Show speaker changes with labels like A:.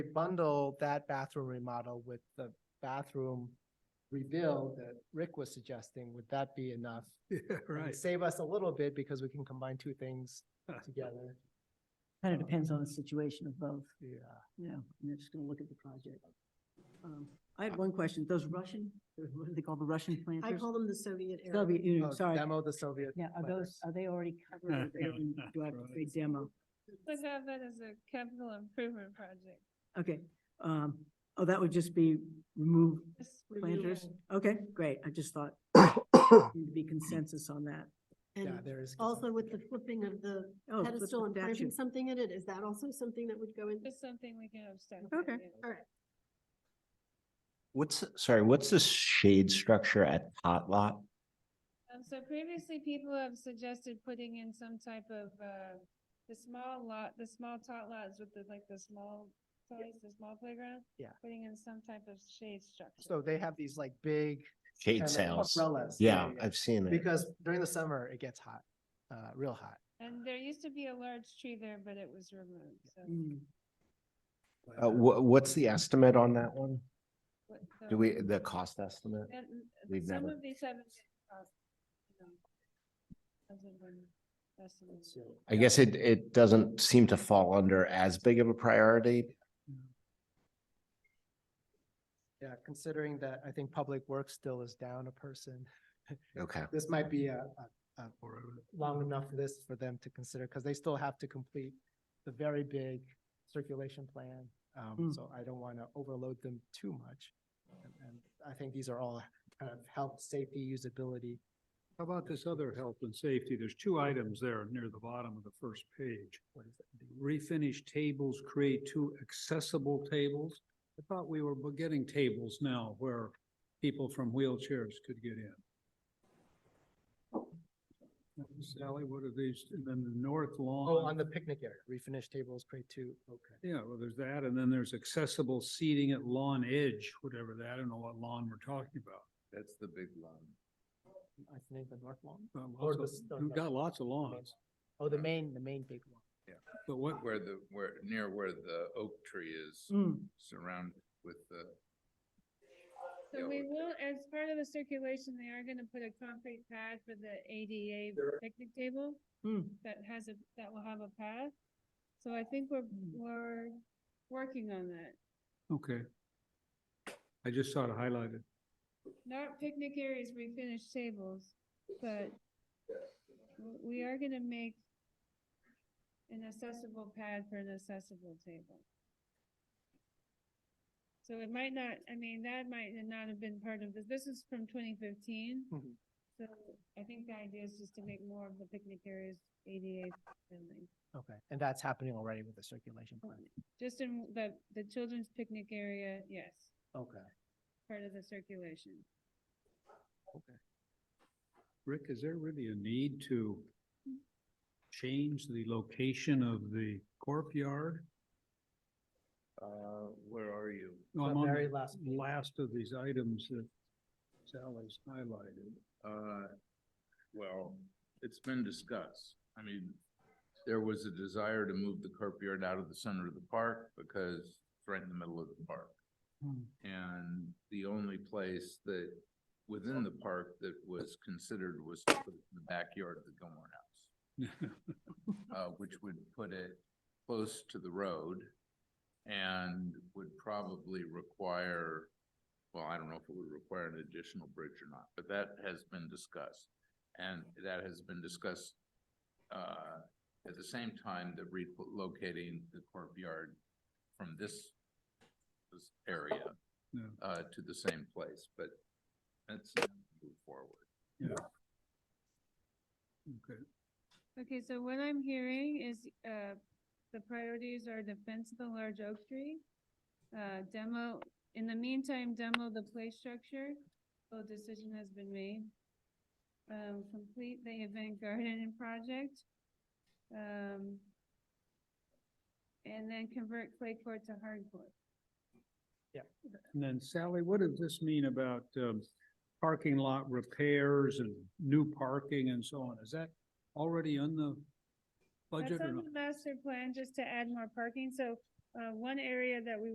A: bundle that bathroom remodel with the bathroom rebuild that Rick was suggesting, would that be enough?
B: Yeah,
A: And
B: right.
A: Save us a little bit because we can combine two things together.
C: Kind of depends on the situation of both,
A: Yeah.
C: you know, and they're just gonna look at the project. Um, I had one question, those Russian, what do they call the Russian
D: I
C: planters?
D: call them the Soviet era.
C: Soviet
A: Oh,
C: Union, sorry.
A: Demo the Soviet.
C: Yeah, are those,
A: planters.
C: are they already covered? or they already- Do I have to say demo?
E: Would have that as a capital improvement project.
C: Okay, um, oh, that would just be remove
E: Just
C: planters?
E: remove
C: Okay, great, I just thought there'd be consensus on that.
A: Yeah,
D: And
A: there is.
D: also
A: consent.
D: with the flipping of the
C: Oh, flip
D: pedestal
C: the
D: and planting
C: statue.
D: something in it, is that also something that would go in?
E: it. Just something we can abstract.
C: Okay.
E: from it.
D: All right,
F: What's, sorry, what's the shade structure at Tot Lot?
E: Um, so previously, people have suggested putting in some type of, uh, the small lot, the small tot lots with the, like, the small toys, the small playground.
A: Yeah.
E: Putting in some type of shade structure.
A: So they have these like big. kind
F: Shade
A: of
F: sails.
A: Umbrellas.
F: Yeah, I've seen it.
A: Because during the summer, it gets hot, uh, real hot.
E: And there used to be a large tree there, but it was removed, so.
C: Mm.
F: Uh, wha- what's the estimate on that one?
E: what
F: Do
E: the-
F: we, the cost estimate?
E: And
F: We've
E: some
F: never-
E: of these haven't. been, uh, you know, hasn't been estimated.
F: I guess it, it doesn't seem to fall under as big of a priority.
A: Yeah, considering that I think Public Works still is down a person.
F: Okay.
A: This might be a, a, a long enough list for them to consider, because they still have to complete the very big circulation plan. Um,
C: Mm.
A: so I don't want to overload them too much. And, and I think these are all kind of health, safety, usability.
B: How about this other health and safety? There's two items there near the bottom of the first page.
A: What is that?
B: Refinish tables, create two accessible tables. I thought we were getting tables now where people from wheelchairs could get in. Sally, what are these? And then the north lawn.
A: Oh, on the picnic area, refinish tables, grade two, okay.
B: Yeah, well, there's that, and then there's accessible seating at lawn edge, whatever that, I don't know what lawn we're talking about.
F: That's the big one.
A: I think the north lawn.
B: Uh,
A: Or
B: lots of-
A: the-
B: We've got lots of lawns,
A: Oh, the main, the main big one.
B: but what,
G: Where the, where, near where the oak tree is
C: Mm.
G: surrounded with the,
E: So
G: Yeah,
E: we will, as part of the circulation, they are gonna put a concrete pad for the ADA picnic table
C: Mm.
E: that has a, that will have a path. So I think we're, we're working on that.
B: okay. I just saw it highlighted.
E: Not picnic areas, refinish tables, but w- we are gonna make an accessible pad for an accessible table. So it might not, I mean, that might not have been part of this. This is from twenty fifteen.
A: Mhm.
E: So I think the idea is just to make more of the picnic areas ADA friendly.
A: Okay, and that's happening already with the circulation plan.
E: Just in the, the children's picnic area, yes,
A: Okay.
E: part of the circulation.
B: Rick, is there really a need to change the location of the corp yard?
G: uh, where are you?
B: No, I'm
A: The
B: on
A: very
B: the
A: last page.
B: last of these items that Sally's highlighted.
G: Uh, well, it's been discussed. I mean, there was a desire to move the curb yard out of the center of the park because it's right in the middle of the park.
B: Hmm.
G: And the only place that, within the park that was considered was to put it in the backyard of the Gilmore House. uh, which would put it close to the road and would probably require, well, I don't know if it would require an additional bridge or not, but that has been discussed. And that has been discussed, uh, at the same time that relocating the courtyard from this, this area,
B: Yeah.
G: uh, to the same place, but that's not move forward.
B: Okay,
E: Okay, so what I'm hearing is, uh, the priorities are defense of the large oak tree, uh, demo, in the meantime, demo the play structure, full decision has been made. Um, complete the event garden project, um, and then convert clay court to hard court.
B: and then Sally, what does this mean about, um, parking lot repairs and new parking and so on? Is that already on the budget
E: That's
B: or
E: on
B: not?
E: the master plan, just to add more parking, so, uh, one area that we